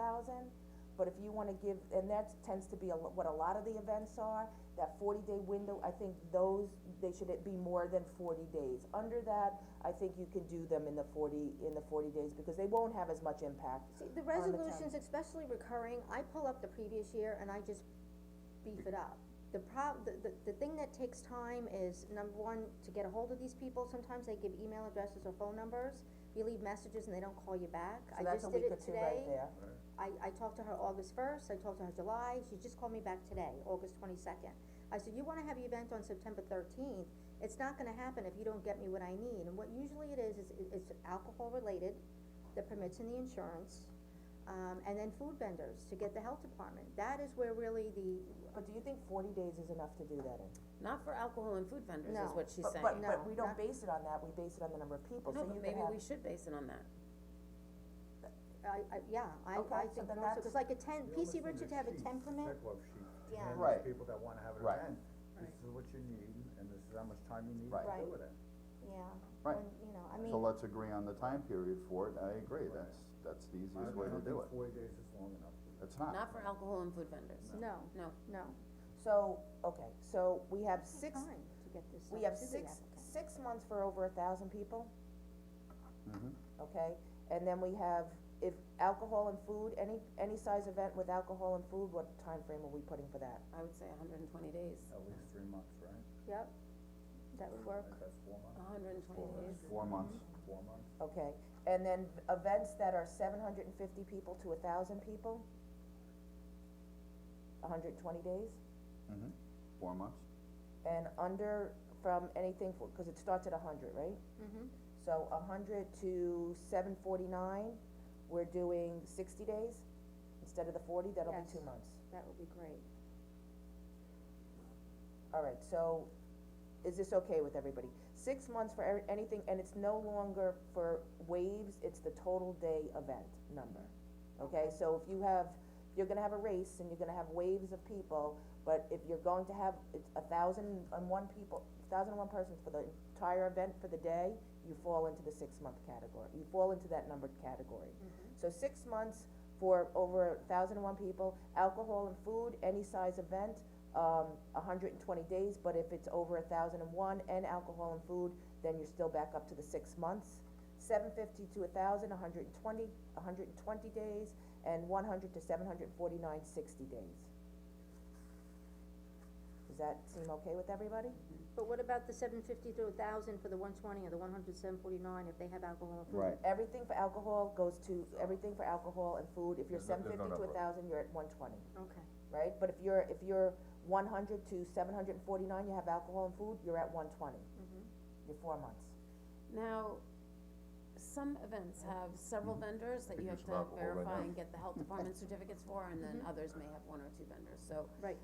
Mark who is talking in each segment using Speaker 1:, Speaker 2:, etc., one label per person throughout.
Speaker 1: thousand, but if you wanna give, and that tends to be a lo- what a lot of the events are, that forty-day window, I think those, they should be more than forty days. Under that, I think you can do them in the forty, in the forty days, because they won't have as much impact.
Speaker 2: See, the
Speaker 1: the town.
Speaker 2: resolutions, especially recurring, I pull up the previous year and I just beef it up. The prob, the, the, the thing that takes time is, number one, to get a hold of these people, sometimes they give email addresses or phone numbers, you leave messages and they don't call you back, I just did
Speaker 1: So that's a week
Speaker 2: it
Speaker 1: or two right
Speaker 2: today.
Speaker 1: there.
Speaker 2: I, I talked to her August first, I talked to her July, she just called me back today, August twenty-second. I said, you wanna have your event on September thirteenth, it's not gonna happen if you don't get me what I need, and what usually it is, is it- it's alcohol related, the permits and the insurance, um, and then food vendors to get the health department, that is where really the,
Speaker 1: But do you think forty days is enough to do that in?
Speaker 3: Not for alcohol and food vendors
Speaker 2: No.
Speaker 3: is what she's
Speaker 1: But-
Speaker 3: saying.
Speaker 1: But, but,
Speaker 2: No,
Speaker 1: we don't
Speaker 2: not-
Speaker 1: base it on that, we base it on the number of people, so
Speaker 3: No,
Speaker 1: you
Speaker 3: but
Speaker 1: could
Speaker 3: maybe
Speaker 1: have,
Speaker 3: we should base it on that.
Speaker 2: I, I, yeah, I,
Speaker 1: Okay,
Speaker 2: I
Speaker 1: so
Speaker 2: think
Speaker 1: then
Speaker 2: also,
Speaker 1: that's-
Speaker 2: cause like a ten,
Speaker 4: You
Speaker 2: PC
Speaker 4: almost need
Speaker 2: Richard to have a
Speaker 4: sheet,
Speaker 2: ten permit,
Speaker 4: Checklist sheet, to
Speaker 2: Yeah.
Speaker 4: hand to
Speaker 5: Right.
Speaker 4: people that wanna have an
Speaker 5: Right.
Speaker 4: event, this is what you need, and this is how much time you need to
Speaker 5: Right.
Speaker 2: Right.
Speaker 4: do it in.
Speaker 2: yeah,
Speaker 5: Right.
Speaker 2: and, you know, I mean,
Speaker 5: So let's agree on the time period for it, I agree, that's, that's the easiest way to do it,
Speaker 4: forty days is long enough.
Speaker 5: it's not.
Speaker 3: Not for alcohol and food vendors.
Speaker 2: Uh, no,
Speaker 3: No,
Speaker 2: no,
Speaker 1: so, okay, so we have
Speaker 2: it's
Speaker 1: six,
Speaker 2: time to get this
Speaker 1: we
Speaker 2: stuff
Speaker 1: have
Speaker 2: to the
Speaker 1: six,
Speaker 2: applicant.
Speaker 1: six months for over a thousand people,
Speaker 5: Mhm.
Speaker 1: okay? And then we have, if alcohol and food, any, any size event with alcohol and food, what time frame are we putting for that?
Speaker 3: I would say hundred and twenty days.
Speaker 4: At least three months, right?
Speaker 2: Yep, that would work.
Speaker 4: Like That's four months,
Speaker 3: hundred and twenty days.
Speaker 5: Four months,
Speaker 4: four months,
Speaker 1: Okay, and then events that are seven hundred and fifty people to a thousand people? hundred and twenty days?
Speaker 5: hmm four months,
Speaker 1: And under, from anything, for- cause it starts at a hundred, right?
Speaker 2: Mm-hmm.
Speaker 1: So a hundred to seven forty-nine, we're doing sixty days instead of the forty, that'll be
Speaker 2: Yes.
Speaker 1: two months.
Speaker 2: That would be great.
Speaker 1: Alright, so is this okay with everybody? Six months for every- anything, and it's no longer for waves, it's the total day event number. Okay, so if you have, if you're gonna have a race and you're gonna have waves of people, but if you're going to have, it's a thousand and one people, thousand and one persons for the entire event for the day, you fall into the six-month category, you fall into that numbered category. So six months for over thousand and one people, alcohol and food, any size event, um, hundred and twenty days, but if it's over thousand and one and alcohol and food, then you're still back up to the six months. Seven fifty to thousand, hundred and twenty, hundred and twenty days, and one hundred to seven hundred and forty-nine, sixty days. Does that seem okay with everybody?
Speaker 2: But what about the seven fifty to a thousand for the one twenty or the one hundred seven forty-nine if they have alcohol and food?
Speaker 5: right,
Speaker 1: Everything for alcohol goes to, everything for alcohol and food, if you're
Speaker 5: There's no-
Speaker 1: seven
Speaker 5: there's no
Speaker 1: fifty to
Speaker 5: number.
Speaker 1: thousand, you're at one twenty.
Speaker 2: Okay,
Speaker 1: right? But if you're, if you're one hundred to seven hundred and forty-nine, you have alcohol and food, you're at one twenty. You're four months.
Speaker 3: Now, some events have several
Speaker 2: Mm-hmm.
Speaker 3: vendors that
Speaker 5: Could
Speaker 3: you have
Speaker 5: use
Speaker 3: to
Speaker 5: some alcohol right
Speaker 3: verify
Speaker 5: now.
Speaker 3: and get the health department certificates for, and
Speaker 2: Mm-hmm.
Speaker 3: then others may have one or two vendors, so.
Speaker 2: right.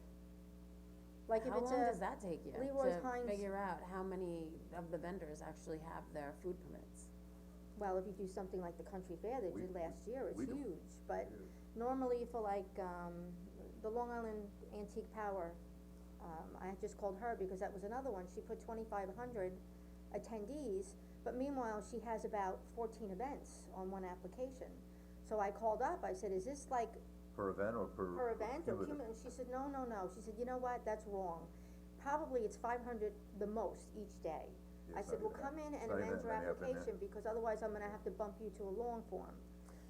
Speaker 2: Like if
Speaker 3: How
Speaker 2: it's
Speaker 3: long does
Speaker 2: a,
Speaker 3: that take you
Speaker 2: Leroy's
Speaker 3: to
Speaker 2: Heinz-
Speaker 3: figure out how many of the vendors actually have their food permits?
Speaker 2: well, if you do something like the country fair they
Speaker 5: We-
Speaker 2: did last year, it's
Speaker 5: we do-
Speaker 2: huge, but
Speaker 4: Huge.
Speaker 2: normally for like, um, the Long Island Antique Power, um, I had just called her because that was another one, she put twenty-five hundred attendees, but meanwhile, she has about fourteen events on one application. So I called up, I said, is this like
Speaker 5: per event or per?
Speaker 2: per event or
Speaker 5: cumulative?
Speaker 2: cumulative, she said, no, no, no, she said, you know what, that's wrong. Probably it's five hundred the most each day.
Speaker 5: Yeah,
Speaker 2: I
Speaker 5: it's
Speaker 2: said, well,
Speaker 5: not even that.
Speaker 2: come in and
Speaker 5: It's not even
Speaker 2: amend your
Speaker 5: that many up in there.
Speaker 2: application, because otherwise I'm gonna have to bump you to a long form.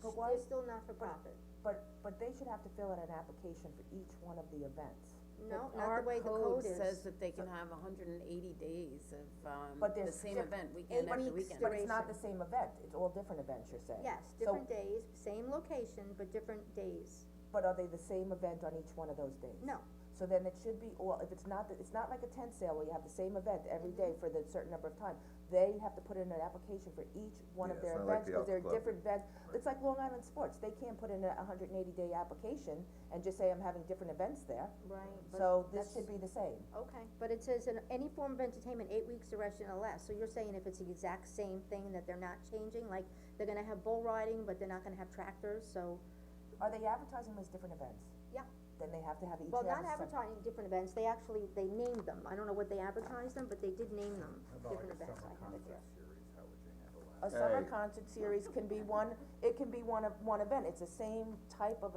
Speaker 1: But
Speaker 2: Sh-
Speaker 1: why-
Speaker 2: They're still not for profit,
Speaker 1: But, but they should have to fill out an application for each one of the events.
Speaker 2: no, not the way the code is.
Speaker 3: Our code says that they can have hundred and eighty days of, um,
Speaker 1: But
Speaker 3: the
Speaker 1: there's
Speaker 3: same
Speaker 1: diff-
Speaker 3: event,
Speaker 2: eight
Speaker 3: weekend after
Speaker 2: weeks
Speaker 3: weekend.
Speaker 1: But it's not the same event, it's all different events, you're saying?
Speaker 2: Yes,
Speaker 1: So-
Speaker 2: different days, same location, but different days,
Speaker 1: But are they the same event on each one of those days?
Speaker 2: no,
Speaker 1: So then it should be all, if it's not, the- it's not like a tent sale where you have the same event every day for the certain number of time. They have to put in an application for each one of
Speaker 5: Yeah,
Speaker 1: their
Speaker 5: it's not like
Speaker 1: events,
Speaker 5: the
Speaker 1: cause they're
Speaker 5: Elks Club.
Speaker 1: different events. It's like Long Island Sports, they can't put in a hundred and eighty day application and just say I'm having different events there,
Speaker 2: right, but
Speaker 1: so this
Speaker 2: that's-
Speaker 1: should be the same.
Speaker 2: Okay, but it says in any form of entertainment, eight weeks duration or less, so you're saying if it's the exact same thing that they're not changing, like, they're gonna have bull riding, but they're not gonna have tractors, so.
Speaker 1: Are they advertising them as different events?
Speaker 2: Yeah.
Speaker 1: Then they have to have each
Speaker 2: Well,
Speaker 1: have
Speaker 2: not
Speaker 1: a sep-
Speaker 2: advertising different events, they actually, they named them, I don't know what they advertised them, but they did name them,
Speaker 4: How about like
Speaker 2: different
Speaker 4: a
Speaker 2: events,
Speaker 4: summer
Speaker 2: I have it here.
Speaker 4: concept series, how would you handle that?
Speaker 1: a summer
Speaker 5: Hey.
Speaker 1: concert series can be one, it can be one of, one event, it's the same type of